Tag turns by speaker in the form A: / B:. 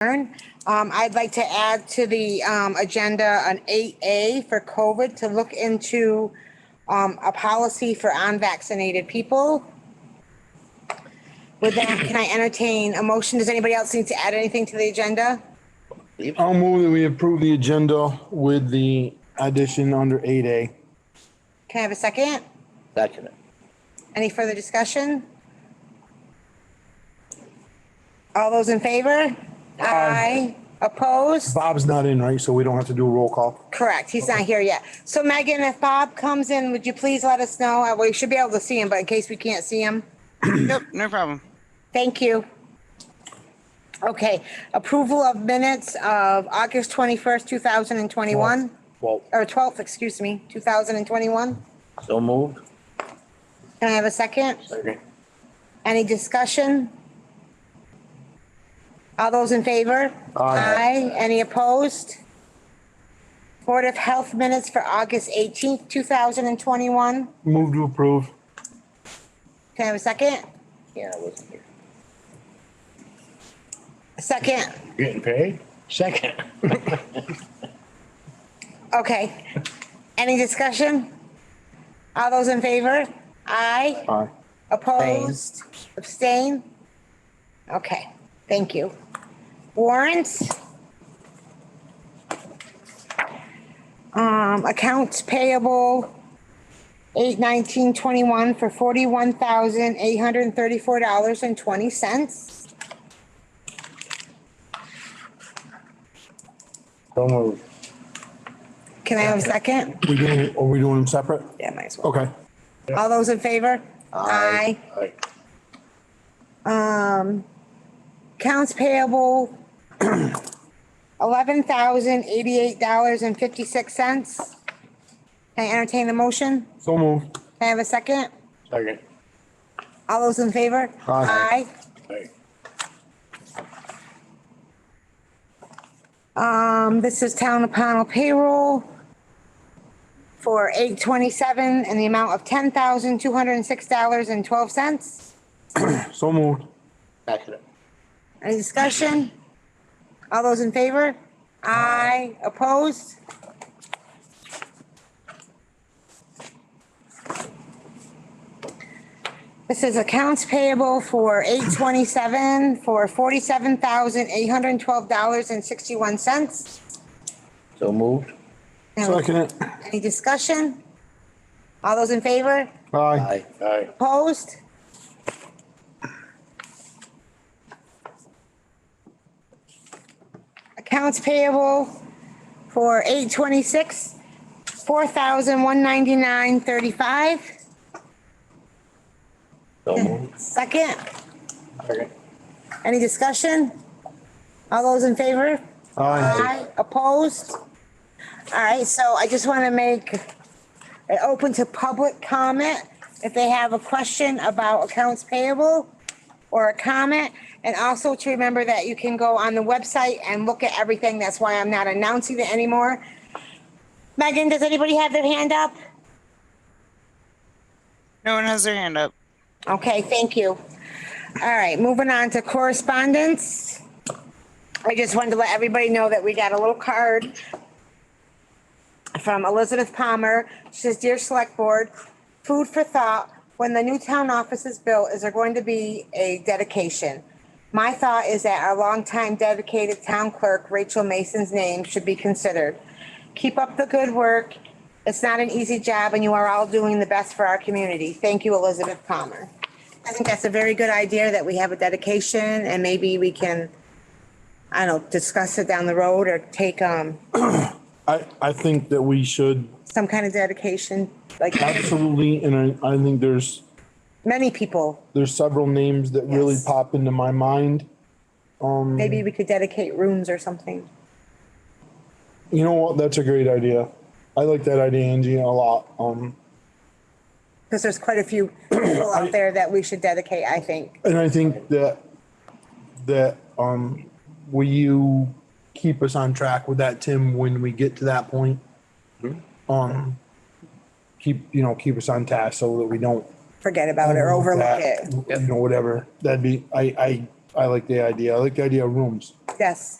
A: adjourn. Um, I'd like to add to the, um, agenda an eight A for COVID to look into, um, a policy for unvaccinated people. With that, can I entertain a motion? Does anybody else need to add anything to the agenda?
B: I'll move that we approve the agenda with the addition under eight A.
A: Can I have a second?
C: Second it.
A: Any further discussion? All those in favor? Aye. Opposed?
B: Bob's not in, right? So we don't have to do a roll call.
A: Correct, he's not here yet. So Megan, if Bob comes in, would you please let us know? Uh, We should be able to see him, but in case we can't see him,
D: Yep, no problem.
A: thank you. Okay, approval of minutes of August twenty-first, two thousand and twenty-one,
C: Well,
A: or twelfth, excuse me, two thousand and twenty-one.
C: so moved.
A: Can I have a second?
C: Second.
A: Any discussion? All those in favor?
B: Aye.
A: Any opposed? Board of Health minutes for August eighteenth, two thousand and twenty-one.
B: Move to approve.
A: Can I have a second?
C: Yeah, I wasn't here.
A: A Second,
C: Getting paid? Second.
A: okay. Any discussion? All those in favor? Aye,
B: Aye.
A: opposed, abstain? Okay, thank you. Warrants? Um, accounts payable, eight nineteen twenty-one for forty-one thousand eight hundred and thirty-four dollars and twenty cents.
C: So moved.
A: Can I have a second?
B: We doing, are we doing them separate?
A: Yeah, might as well.
B: Okay.
A: All those in favor?
C: Aye.
A: Um, accounts payable, eleven thousand eighty-eight dollars and fifty-six cents. Can I entertain the motion?
B: So moved.
A: Can I have a second?
C: Second.
A: All those in favor?
B: Aye.
C: Aye.
A: Aye. Um, this is town of panel payroll for eight twenty-seven and the amount of ten thousand two hundred and six dollars and twelve cents.
B: So moved.
C: Second it.
A: Any discussion? All those in favor? Aye. Opposed? This is accounts payable for eight twenty-seven for forty-seven thousand eight hundred and twelve dollars and sixty-one cents.
C: So moved.
B: Second it.
A: Any discussion? All those in favor?
B: Aye.
C: Aye. Aye.
A: Opposed? Accounts payable for eight twenty-six, four thousand one ninety-nine thirty-five.
C: So moved.
A: Second,
C: Second.
A: any discussion? All those in favor? Aye,
B: Aye.
A: opposed? All right, so I just want to make it open to public comment. If they have a question about accounts payable or a comment, and also to remember that you can go on the website and look at everything. That's why I'm not announcing it anymore. Megan, does anybody have their hand up?
D: No one has their hand up.
A: Okay, thank you. All right, moving on to correspondence. I just wanted to let everybody know that we got a little card from Elizabeth Palmer. She says, Dear Select Board, food for thought, when the new town office is built, is there going to be a dedication? My thought is that our longtime dedicated town clerk, Rachel Mason's name should be considered. Keep up the good work. It's not an easy job and you are all doing the best for our community. Thank you, Elizabeth Palmer. I think that's a very good idea that we have a dedication and maybe we can, I don't know, discuss it down the road or take, um,
B: I, I think that we should
A: some kind of dedication, like
B: absolutely, and I, I think there's,
A: many people.
B: there's several names that really
A: Yes.
B: pop into my mind.
A: Maybe we could dedicate rooms or something.
B: You know what? That's a great idea. I like that idea, Angie, a lot. Um,
A: Because there's quite a few people out there that we should dedicate, I think.
B: and I think that that um, will you keep us on track with that, Tim? When we get to that point, um, keep you know keep us on task so that we don't
A: Forget about it or overlook
B: that,
A: it.
B: You know, whatever. That'd be. I I I like the idea. I like the idea of rooms.
A: Yes.